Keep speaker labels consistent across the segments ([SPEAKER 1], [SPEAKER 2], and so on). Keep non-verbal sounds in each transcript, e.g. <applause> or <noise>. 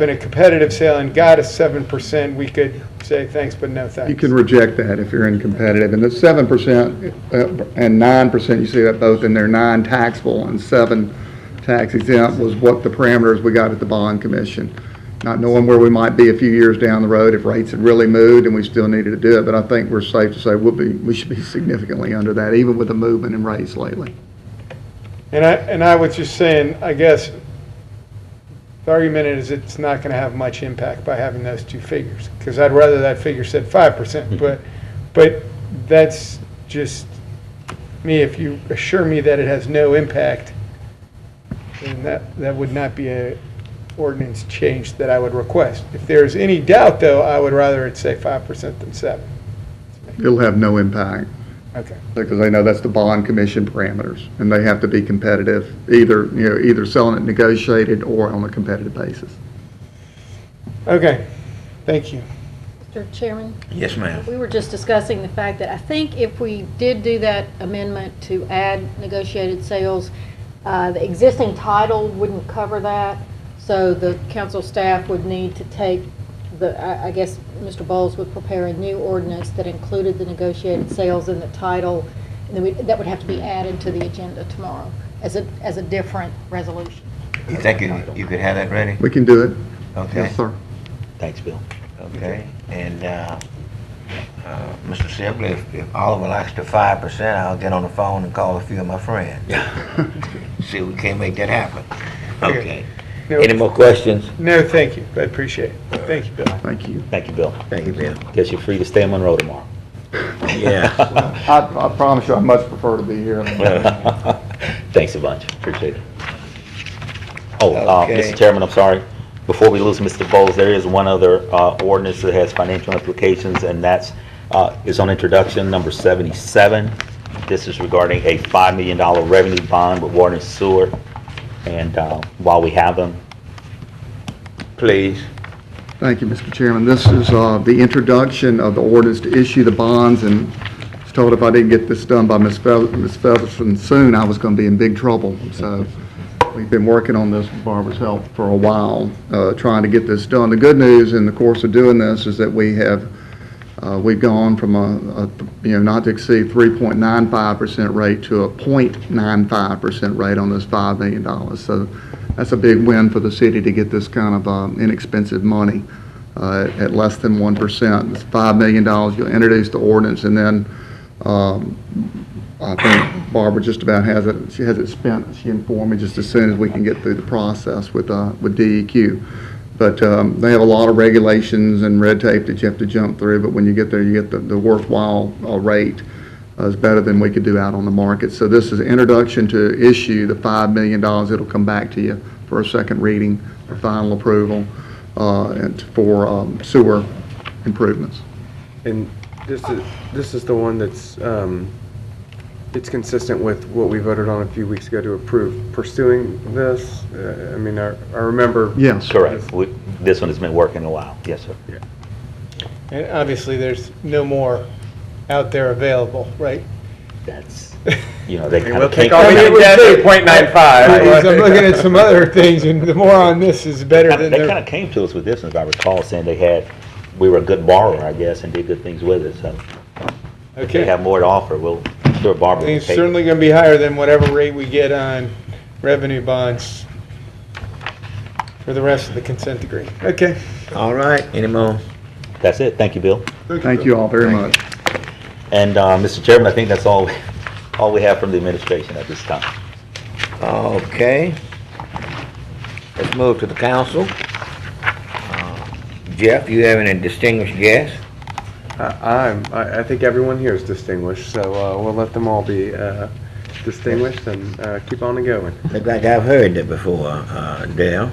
[SPEAKER 1] been a competitive sale and got a 7%, we could say thanks, but no thanks.
[SPEAKER 2] You can reject that if you're in competitive. And the seven percent uh, and nine percent, you see that both in there, nine taxable and seven tax exempt was what the parameters we got at the bond commission. Not knowing where we might be a few years down the road if rates had really moved and we still needed to do it. But I think we're safe to say we'll be, we should be significantly under that, even with the movement in rates lately.
[SPEAKER 1] And I, and I was just saying, I guess, the argument is it's not going to have much impact by having those two figures, because I'd rather that figure said five
[SPEAKER 2] Mm-hmm.
[SPEAKER 1] percent, but, but that's just me, if you assure me that it has no impact, then that, that would not be a ordinance change that I would request. If there's any doubt, though, I would rather it say five percent than seven.
[SPEAKER 2] It'll have no impact.
[SPEAKER 1] Okay.
[SPEAKER 2] Because they know that's the bond commission parameters, and they have to be competitive, either, you know, either selling it negotiated or on a competitive basis.
[SPEAKER 1] Okay, thank you.
[SPEAKER 3] Mr. Chairman,
[SPEAKER 4] Yes, ma'am.
[SPEAKER 3] we were just discussing the fact that I think if we did do that amendment to add negotiated sales, uh, the existing title wouldn't cover that, so the council staff would need to take the, I I guess Mr. Bowles would prepare a new ordinance that included the negotiated sales in the title, and then we- that would have to be added to the agenda tomorrow as a, as a different resolution.
[SPEAKER 4] You think you, you could have that ready?
[SPEAKER 2] We can do it.
[SPEAKER 4] Okay.
[SPEAKER 2] Yes, sir.
[SPEAKER 4] Thanks, Bill. Okay, and, uh, uh, Mr. Sibley, if, if Oliver likes the five percent, I'll get on the phone and call a few of my friends. <laughs> See, if we can't make that happen.
[SPEAKER 1] Okay.
[SPEAKER 4] Okay.
[SPEAKER 1] No-
[SPEAKER 4] Any more questions?
[SPEAKER 1] No, thank you, I appreciate it. Thank you, Bill.
[SPEAKER 2] Thank you.
[SPEAKER 5] Thank you, Bill.
[SPEAKER 4] Thank you, Bill.
[SPEAKER 5] Guess you're free to stay in Monroe tomorrow.
[SPEAKER 4] Yeah.
[SPEAKER 2] I, I promise you, I much prefer to be here.
[SPEAKER 5] Thanks a bunch, appreciate it. Oh, uh,
[SPEAKER 4] Okay.
[SPEAKER 5] Mr. Chairman, I'm sorry. Before we lose Mr. Bowles, there is one other uh, ordinance that has financial implications, and that's, uh, is on introduction, number 77. This is regarding a $5 million revenue bond with water and sewer. And uh, while we have them,
[SPEAKER 4] Please.
[SPEAKER 2] Thank you, Mr. Chairman. This is uh, the introduction of the orders to issue the bonds, and I was told if I didn't get this done by Ms. Fe- Ms. Featherston soon, I was going to be in big trouble. So we've been working on this with Barbara's help for a while, uh, trying to get this done. The good news in the course of doing this is that we have, uh, we've gone from a, a, you know, not to exceed 3.95% rate to a .95% rate on this $5 million. So that's a big win for the city to get this kind of um, inexpensive money uh, at less than 1%. It's $5 million, you'll introduce the ordinance, and then um, I think Barbara just about has it, she has it spent, she informed me just as soon as we can get through the process with, uh, with DEQ. But um, they have a lot of regulations and red tape that you have to jump through, but when you get there, you get the- the worthwhile uh, rate uh, is better than we could do out on the market. So this is introduction to issue, the $5 million, it'll come back to you for a second reading, for final approval, uh, and for um, sewer improvements.
[SPEAKER 6] And this is, this is the one that's, um, it's consistent with what we voted on a few weeks ago to approve pursuing this. Uh, I mean, I, I remember.
[SPEAKER 2] Yes.
[SPEAKER 5] correct, We- this one has been working a while. Yes, sir.
[SPEAKER 1] And obviously, there's no more out there available,
[SPEAKER 5] <laughs>
[SPEAKER 1] right? <laughs>
[SPEAKER 5] That's, you know, they kind
[SPEAKER 6] we'll
[SPEAKER 5] of
[SPEAKER 6] take
[SPEAKER 5] think.
[SPEAKER 6] all
[SPEAKER 1] I
[SPEAKER 6] we
[SPEAKER 1] mean, it
[SPEAKER 6] can
[SPEAKER 1] was
[SPEAKER 6] get
[SPEAKER 1] big.
[SPEAKER 6] 8.95.
[SPEAKER 1] I- because I'm looking at some other things, and the more on this is better than
[SPEAKER 5] They kind
[SPEAKER 1] the,
[SPEAKER 5] of came to us with this, and if I recall, saying they had, we were a good borrower, I guess, and did good things with it, so if they
[SPEAKER 1] okay.
[SPEAKER 5] have more to offer, we'll, I'm sure
[SPEAKER 1] I
[SPEAKER 5] Barbara
[SPEAKER 1] mean,
[SPEAKER 5] will
[SPEAKER 1] It's
[SPEAKER 5] take it.
[SPEAKER 1] certainly gonna be higher than whatever rate we get on revenue bonds for the rest of the consent decree. Okay.
[SPEAKER 4] All right, any more?
[SPEAKER 5] That's it, thank you, Bill.
[SPEAKER 2] Thank you all very much.
[SPEAKER 5] And, uh, Mr. Chairman, I think that's all, <laughs> all we have from the administration at this time.
[SPEAKER 4] Okay. Let's move to the council. Uh, Jeff, you have any distinguished guests?
[SPEAKER 6] I- I'm, I, I think everyone here is distinguished, so, uh, we'll let them all be, uh, distinguished and, uh, keep on
[SPEAKER 7] <laughs>
[SPEAKER 6] and going. <laughs>
[SPEAKER 4] Look like I've heard that before, uh, Dale.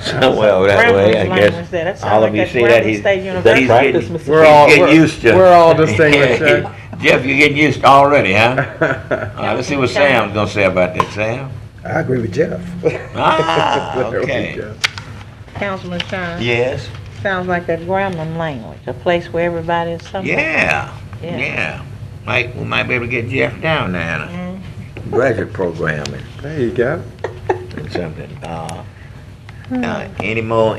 [SPEAKER 4] Somewhere that way, I
[SPEAKER 8] Reference language
[SPEAKER 4] guess.
[SPEAKER 8] there. That sounds
[SPEAKER 4] All
[SPEAKER 8] like
[SPEAKER 4] of you
[SPEAKER 8] that's
[SPEAKER 4] see that, he's,
[SPEAKER 8] Grambling
[SPEAKER 4] he's
[SPEAKER 8] State
[SPEAKER 4] getting,
[SPEAKER 8] University.
[SPEAKER 5] practice, Mr.
[SPEAKER 4] he's
[SPEAKER 6] We're all-
[SPEAKER 4] getting
[SPEAKER 6] we're-
[SPEAKER 4] used to.
[SPEAKER 6] we're
[SPEAKER 4] <laughs>
[SPEAKER 6] all distinguished, huh?
[SPEAKER 4] Jeff, you're getting used already,
[SPEAKER 6] <laughs>
[SPEAKER 4] huh? All right, let's see what Sam's gonna say about that, Sam.
[SPEAKER 7] I agree with Jeff.
[SPEAKER 4] Ah,
[SPEAKER 6] <laughs> There we
[SPEAKER 4] okay.
[SPEAKER 6] go.
[SPEAKER 8] Councilman Shine.
[SPEAKER 4] Yes,
[SPEAKER 8] Sounds like that grambling language, a place where everybody is somewhere.
[SPEAKER 4] yeah,
[SPEAKER 8] Yeah.
[SPEAKER 4] yeah. Might, we might be able to get Jeff down there, in
[SPEAKER 8] Mm-hmm.
[SPEAKER 4] a graduate programming
[SPEAKER 6] There you go.
[SPEAKER 4] and something. Uh,
[SPEAKER 8] Hmm.
[SPEAKER 4] Uh, Any more